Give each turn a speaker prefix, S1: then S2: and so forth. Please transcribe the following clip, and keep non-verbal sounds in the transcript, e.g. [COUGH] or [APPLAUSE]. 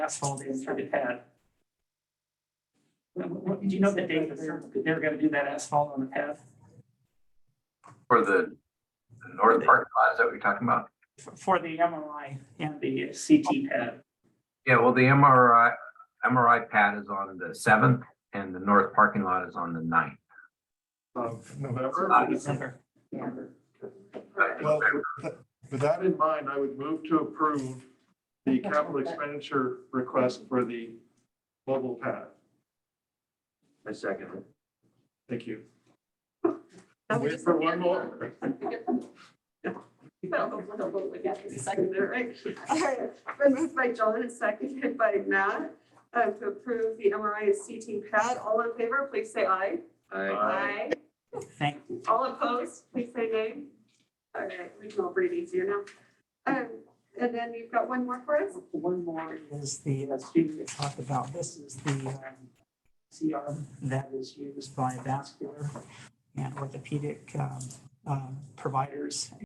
S1: asphalt in through the pad. What- what- do you know the date that they're, that they're gonna do that asphalt on the pad?
S2: For the the north parking lot, is that what you're talking about?
S1: For- For the MRI and the CT pad,
S2: Yeah, well, the MRI, MRI pad is on the seventh and the north parking lot is on the ninth.
S3: of November.
S2: Uh,
S1: December.
S3: Well, with- with that in mind, I would move to approve the capital expenditure request for the mobile pad.
S4: I second.
S3: Thank you.
S5: That was
S3: Wait
S5: just-
S3: for one more.
S5: Well, the- [LAUGHS] the vote we got is seconded, right? All right, Been moved by John and seconded by Matt uh, to approve the MRI and CT pad. All in favor, please say aye.
S3: Aye.
S1: Thank
S5: All opposed, please say nay. All right, we can all breathe easier now. Um, And then you've got one more for us?
S1: One more is the uh, student we talked about. This is the um, CR that is used by vascular and orthopedic um, um, providers